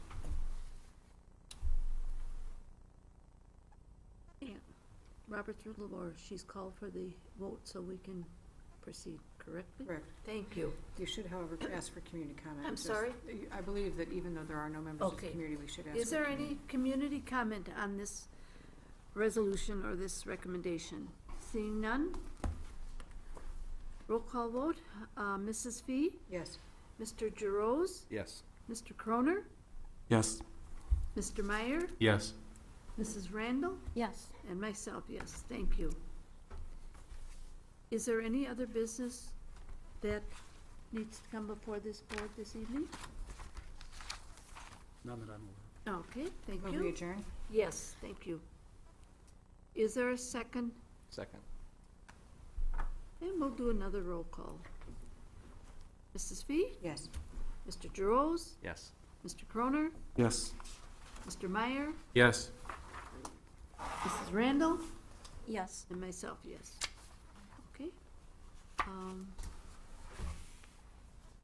Robert's rule of order, she's called for the vote so we can proceed correctly? Correct. Thank you. You should, however, ask for community comment. I'm Just- sorry? I believe that even though there are no members of the Okay. community, we should ask. Is for there community- any community comment on this resolution or this recommendation? Seeing none? Roll call vote, uh, Mrs. Fee, Yes. Mr. Gerose, Yes. Mr. Croner, Yes. Mr. Meyer, Yes. Mrs. Randall, Yes. and myself, yes, thank you. Is there any other business that needs to come before this board this evening? None that I'm aware of. Okay, thank Will we you. adjourn? Yes, thank you. Is there a second? Second. And we'll do another roll call. Mrs. Fee, Yes. Mr. Gerose, Yes. Mr. Croner, Yes. Mr. Meyer, Yes. Mrs. Randall, Yes. and myself, yes. Um,